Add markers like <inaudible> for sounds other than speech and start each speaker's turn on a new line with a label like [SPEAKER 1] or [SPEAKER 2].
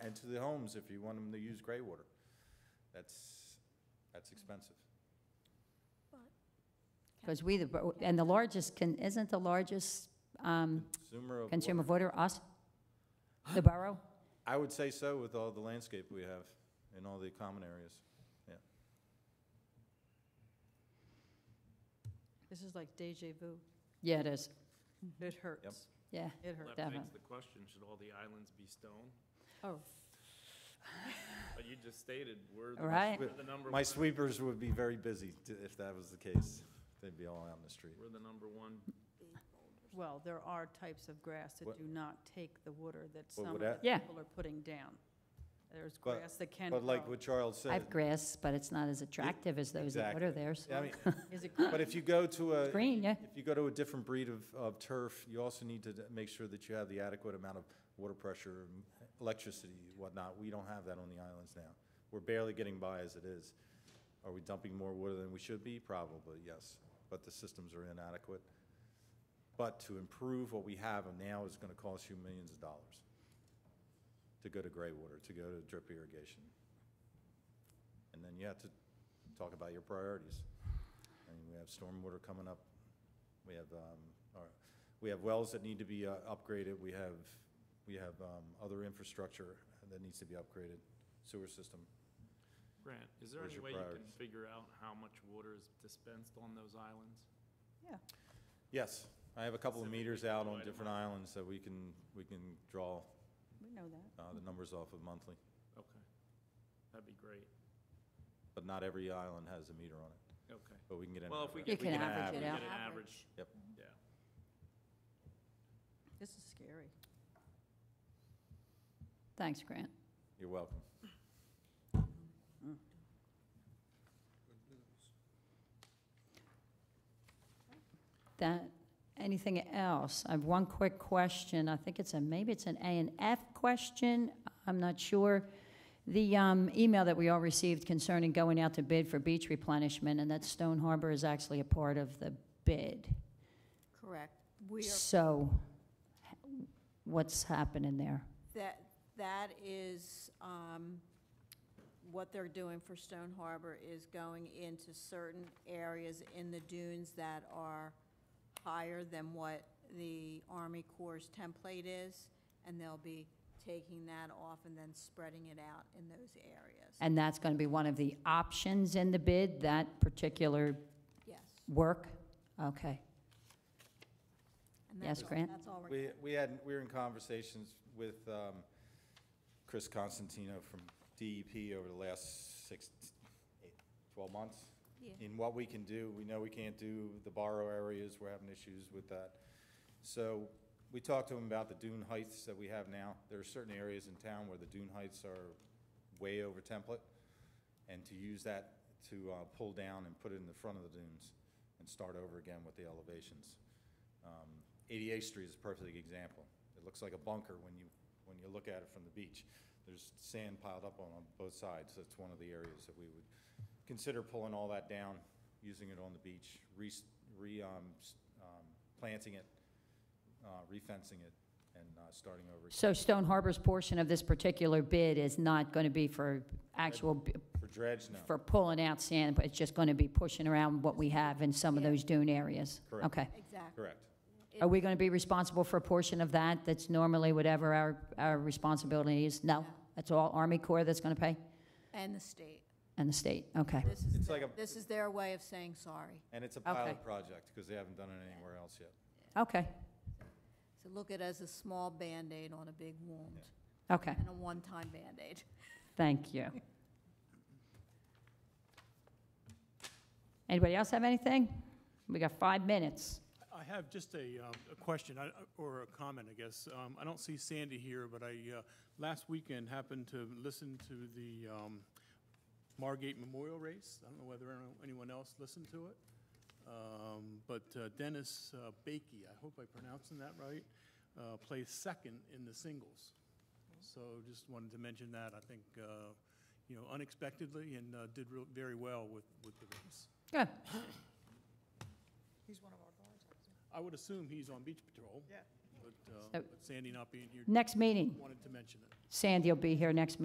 [SPEAKER 1] and to the homes if you want them to use gray water. That's, that's expensive.
[SPEAKER 2] Because we, the and the largest, can isn't the largest um,
[SPEAKER 1] Consumer of
[SPEAKER 2] consumer
[SPEAKER 1] water.
[SPEAKER 2] of water us? The borough?
[SPEAKER 1] I would say so with all the landscape we have in all the common areas.
[SPEAKER 3] This is like deja vu.
[SPEAKER 2] Yeah, it is.
[SPEAKER 4] Mm-hmm.
[SPEAKER 3] It hurts.
[SPEAKER 2] Yeah,
[SPEAKER 3] It
[SPEAKER 5] Well,
[SPEAKER 3] hurts.
[SPEAKER 5] That begs
[SPEAKER 2] Definitely.
[SPEAKER 5] the question, should all the islands be stone?
[SPEAKER 3] Oh,
[SPEAKER 5] But you just stated, we're the,
[SPEAKER 2] right.
[SPEAKER 5] we're the number,
[SPEAKER 1] My
[SPEAKER 5] one-
[SPEAKER 1] sweepers would be very busy t- if that was the case. They'd be all out in the street.
[SPEAKER 5] we're the number one.
[SPEAKER 3] well, there are types of grass that
[SPEAKER 1] What-
[SPEAKER 3] do not take the water that some
[SPEAKER 1] Well,
[SPEAKER 3] of
[SPEAKER 1] would
[SPEAKER 3] the
[SPEAKER 1] that-
[SPEAKER 2] Yeah.
[SPEAKER 3] people are putting down. There's
[SPEAKER 1] But-
[SPEAKER 3] grass that can
[SPEAKER 1] But like
[SPEAKER 3] grow.
[SPEAKER 1] what Charles
[SPEAKER 2] I
[SPEAKER 1] said,
[SPEAKER 2] have grass, but it's not as attractive as those that water
[SPEAKER 1] exactly.
[SPEAKER 2] theirs.
[SPEAKER 1] I mean,
[SPEAKER 3] Is it
[SPEAKER 1] <laughs> but if you go to a,
[SPEAKER 2] Green, yeah.
[SPEAKER 1] if you go to a different breed of, of turf, you also need to d- make sure that you have the adequate amount of water pressure, and electricity, and whatnot. We don't have that on the islands now. We're barely getting by as it is. Are we dumping more water than we should be? Probably, yes, but the systems are inadequate. But to improve what we have now is gonna cost you millions of dollars to go to gray water, to go to drip irrigation. And then you have to talk about your priorities. I mean, we have stormwater coming up. We have, um, our, we have wells that need to be uh, upgraded. We have, we have, um, other infrastructure that needs to be upgraded, sewer system.
[SPEAKER 5] Grant, is there
[SPEAKER 1] Where's
[SPEAKER 5] any
[SPEAKER 1] your
[SPEAKER 5] way you can
[SPEAKER 1] priorities?
[SPEAKER 5] figure out how much water is dispensed on those islands?
[SPEAKER 1] Yes, I have a couple of
[SPEAKER 5] Specifically
[SPEAKER 1] meters out
[SPEAKER 5] for
[SPEAKER 1] on
[SPEAKER 5] item
[SPEAKER 1] different
[SPEAKER 5] one.
[SPEAKER 1] islands that we can, we can draw,
[SPEAKER 3] We know that.
[SPEAKER 1] uh, the numbers off of monthly,
[SPEAKER 5] Okay, that'd be great,
[SPEAKER 1] but not every island has a meter on it,
[SPEAKER 5] okay.
[SPEAKER 1] but we can get an.
[SPEAKER 5] Well, if we
[SPEAKER 1] average.
[SPEAKER 2] You
[SPEAKER 5] get,
[SPEAKER 2] can
[SPEAKER 5] we get an
[SPEAKER 2] average it
[SPEAKER 5] average,
[SPEAKER 2] out.
[SPEAKER 5] get an average, yeah.
[SPEAKER 3] This is scary.
[SPEAKER 2] Thanks, Grant.
[SPEAKER 1] You're welcome.
[SPEAKER 2] That, anything else? I have one quick question. I think it's a, maybe it's an A and F question. I'm not sure. The um, email that we all received concerning going out to bid for beach replenishment and that Stone Harbor is actually a part of the bid.
[SPEAKER 4] Correct. We are,
[SPEAKER 2] So h- what's happening there?
[SPEAKER 4] that, that is, um, what they're doing for Stone Harbor is going into certain areas in the dunes that are higher than what the Army Corps' template is, and they'll be taking that off and then spreading it out in those areas.
[SPEAKER 2] And that's going to be one of the options in the bid, that particular
[SPEAKER 4] Yes.
[SPEAKER 2] work? Okay.
[SPEAKER 4] And
[SPEAKER 2] Yes,
[SPEAKER 4] that's all-
[SPEAKER 2] Grant?
[SPEAKER 4] That's all we're.
[SPEAKER 1] We, we had, we were in conversations with um, Chris Constantino from DEP over the last six, eight, 12 months.
[SPEAKER 4] Yeah.
[SPEAKER 1] In what we can do, we know we can't do the borrow areas, we're having issues with that. So we talked to him about the dune heights that we have now. There are certain areas in town where the dune heights are way over template, and to use that to uh, pull down and put it in the front of the dunes and start over again with the elevations. Um, 88th Street is a perfect example. It looks like a bunker when you, when you look at it from the beach. There's sand piled up on on both sides. That's one of the areas that we would consider pulling all that down, using it on the beach, re, re, um, s- um, planting it, uh, refencing it, and uh, starting over. again.
[SPEAKER 2] So Stone Harbor's portion of this particular bid is not going to be for actual, b-
[SPEAKER 1] For dredge, no.
[SPEAKER 2] for pulling out sand, but it's just going to be pushing around what we have in some of
[SPEAKER 4] Yeah.
[SPEAKER 2] those dune areas?
[SPEAKER 1] Correct.
[SPEAKER 2] Okay.
[SPEAKER 4] Exactly.
[SPEAKER 1] Correct.
[SPEAKER 2] Are we going to be responsible for a portion of that that's normally whatever our, our responsibility is? No?
[SPEAKER 4] No.
[SPEAKER 2] That's all Army Corps that's going to pay?
[SPEAKER 4] And the state.
[SPEAKER 2] And the state? Okay.
[SPEAKER 4] This is,
[SPEAKER 1] It's
[SPEAKER 4] their-
[SPEAKER 1] like a-
[SPEAKER 4] this is their way of saying sorry.
[SPEAKER 1] And it's a
[SPEAKER 2] Okay.
[SPEAKER 1] pilot project, because they haven't done it anywhere else yet.
[SPEAKER 2] Okay.
[SPEAKER 4] So look at it as a small Band-Aid on a big wound.
[SPEAKER 2] Okay.
[SPEAKER 4] And a one-time Band-Aid.
[SPEAKER 2] Thank you. Anybody else have anything? We got five minutes.
[SPEAKER 6] I have just a, um, a question, I- or a comment, I guess. Um, I don't see Sandy here, but I, uh, last weekend happened to listen to the um, Margate Memorial Race. I don't know whether anyone- anyone else listened to it. Um, But uh, Dennis uh, Bakey, I hope I'm pronouncing that right, uh, placed second in the singles. So just wanted to mention that, I think, uh, you know, unexpectedly, and uh, did real- very well with, with the race.
[SPEAKER 2] Good.
[SPEAKER 6] I would assume he's on beach patrol.
[SPEAKER 7] Yeah.
[SPEAKER 6] but uh,
[SPEAKER 2] So-
[SPEAKER 6] with Sandy not being here,
[SPEAKER 2] Next meeting,
[SPEAKER 6] wanted to mention it.
[SPEAKER 2] Sandy will be here next